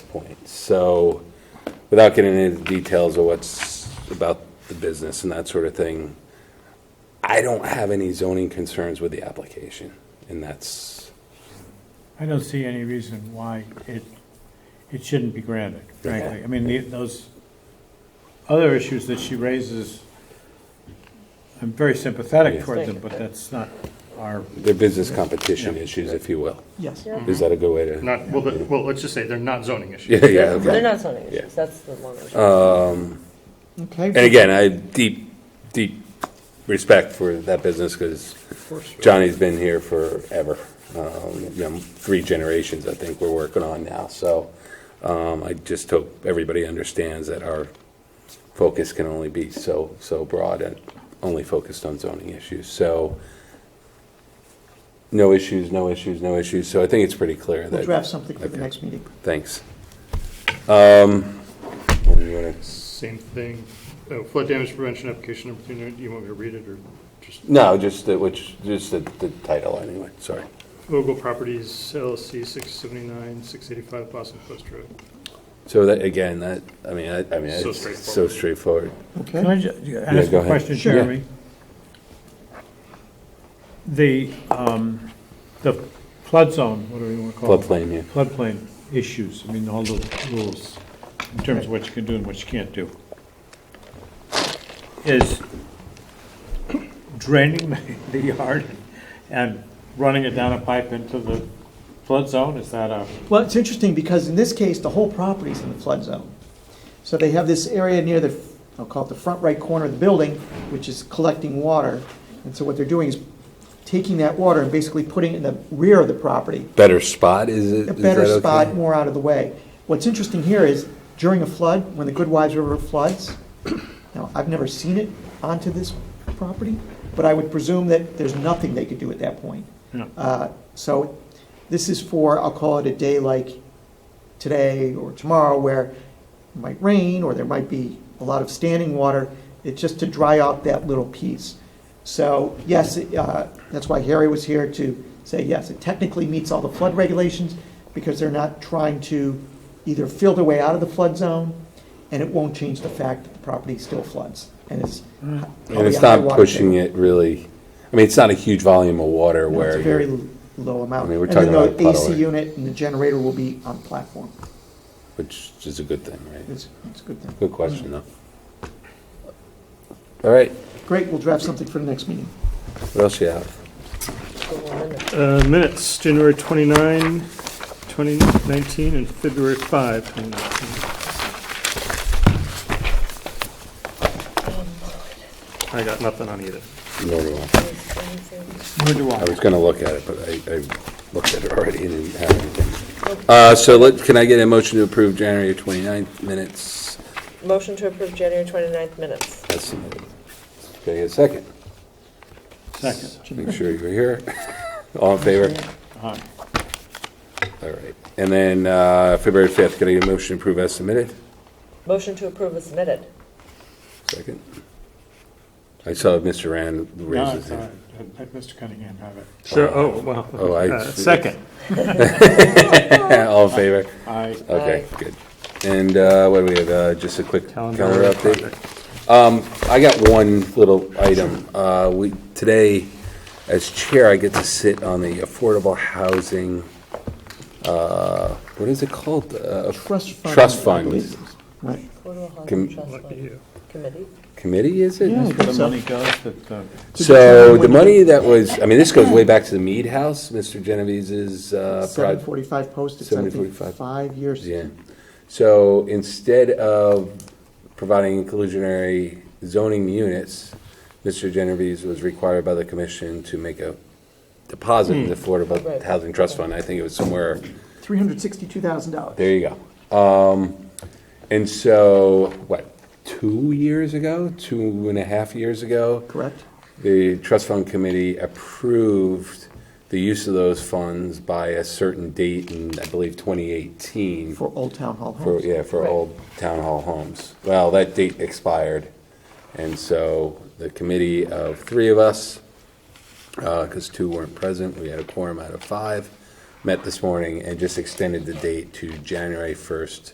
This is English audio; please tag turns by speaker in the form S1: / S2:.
S1: point. So, without getting into the details of what's about the business and that sort of thing, I don't have any zoning concerns with the application, and that's,
S2: I don't see any reason why it, it shouldn't be granted, frankly.
S1: Okay.
S2: I mean, the- those other issues that she raises, I'm very sympathetic
S1: Yeah.
S2: toward them, but that's not our,
S1: they're business competition
S2: Yeah.
S1: issues, if you will.
S3: Yes.
S1: Is that a good way to?
S4: Not, well, the- well, let's just say they're not zoning issues.
S1: Yeah, yeah,
S3: They're
S1: okay.
S3: not zoning
S1: Yeah. Uh,
S3: issues, that's the longer issue.
S1: And
S3: Okay.
S1: again, I have deep, deep respect for that business because Johnny's been here forever. Um, you know, Three generations, I think, we're working on now. So um, I just hope everybody understands that our focus can only be so, so broad and only focused on zoning issues. So no issues, no issues, no issues. So I think it's pretty clear
S3: We'll
S1: that.
S3: draft something for the
S1: Okay.
S3: next meeting.
S1: Thanks. Um, what do you wanna-
S4: Same thing, oh, flood damage prevention application number two, do you want me to read it, or just,
S1: No, just the, which, just the, the title anyway, sorry.
S4: Ogle Properties LLC, 679, 685 Boston Post Road.
S1: So that, again, that, I mean, I, I mean,
S4: So
S1: it's so straightforward.
S2: can
S3: Okay.
S2: I ju- ask
S1: go
S2: a
S1: ahead.
S2: question,
S1: Sure.
S2: Jeremy? The, um, the flood zone, what do we
S3: Oh.
S2: want to call it?
S1: Floodplain, yeah.
S2: Floodplain issues, I mean, all those rules in terms of what you can do and what you can't do. Is draining the- the yard and running it down a pipe into the flood zone, is that a,
S3: Well, it's interesting because in this case, the whole property's in the flood zone. So they have this area near the, I'll call it the front right corner of the building, which is collecting water. And so what they're doing is taking that water and basically putting it in the rear of the property.
S1: Better spot, is it?
S3: a
S1: is
S3: better
S1: that okay?
S3: spot, more out of the way. What's interesting here is during a flood, when the Good Wives River floods, now, I've never seen it onto this property, but I would presume that there's nothing they could do at that point.
S2: No.
S3: Uh, So this is for, I'll call it a day like today or tomorrow where it might rain or there might be a lot of standing water. It's just to dry out that little piece. So yes, it, uh, that's why Harry was here to say, yes, it technically meets all the flood regulations because they're not trying to either fill their way out of the flood zone and it won't change the fact that the property still floods and it's. Oh,
S1: And it's not pushing it really, I mean, it's not a huge volume of water
S3: It's
S1: where
S3: a very
S1: you're,
S3: l- low amount.
S1: I mean, we're talking about
S3: And then the
S1: puddle.
S3: AC unit and the generator will be on platform.
S1: which is a good thing, right?
S3: It's, it's a good thing.
S1: Good question, though. All right,
S3: Great, we'll draft something for the next meeting.
S1: what else you have?
S4: Uh, Minutes, January 29, 2019, and February 5, 2019. I got nothing on either.
S1: No, no, no.
S2: where do
S1: I
S2: I?
S1: was gonna look at it, but I, I looked at it already and didn't have anything. Uh, so let, can I get a motion to approve January 29th minutes?
S5: Motion to approve January 29th minutes.
S1: That's submitted. Can I get a second?
S2: Second.
S1: Make sure you're here. All in favor?
S2: Aye.
S1: All right. And then uh, February 5th, can I get a motion to approve as submitted?
S5: Motion to approve is submitted.
S1: Second. I saw Mr. Rand
S2: No,
S1: raise his
S2: it's all right.
S1: hand.
S2: Let- let Mr. Cunningham have it.
S4: Sure, oh, wow.
S1: Oh, I-
S4: Uh, Second.
S1: All in favor?
S2: I,
S1: Okay, good. And uh, what do we have? Uh, Just a quick
S4: Calendar
S1: calendar update?
S4: project.
S1: Um, I got one little item. Uh, we, today, as chair, I get to sit on the Affordable Housing, uh, what is it called? Uh,
S3: Trust fund.
S1: Trust
S3: I
S1: fund.
S3: believe it is. Right.
S5: Affordable
S1: Com-
S5: Housing Trust
S4: Lucky
S5: Fund
S4: you.
S5: Committee.
S1: Committee, is it?
S3: Yeah.
S2: that's where the
S3: So-
S2: money goes, that, uh,
S1: So the money that was, I mean, this goes way back to the Mead House, Mr. Genovese's uh,
S3: Seven
S1: project.
S3: forty-five post, it's I think
S1: 745.
S3: five years.
S1: Yeah. So instead of providing inclusionary zoning units, Mr. Genovese was required by the commission to make a deposit in the Affordable
S5: Right.
S1: Housing Trust Fund. I think it was somewhere,
S3: Three hundred sixty-two thousand dollars.
S1: there you go. Um, And so, what, two years ago, two and a half years ago?
S3: Correct?
S1: the trust fund committee approved the use of those funds by a certain date in, I believe, 2018.
S3: For Old Town Hall
S1: For,
S3: homes.
S1: yeah, for
S5: Right.
S1: old town hall homes. Well, that date expired, and so the committee uh, of three of us, because two weren't present, we had a quorum out of five, met this morning and just extended the date to January 1st,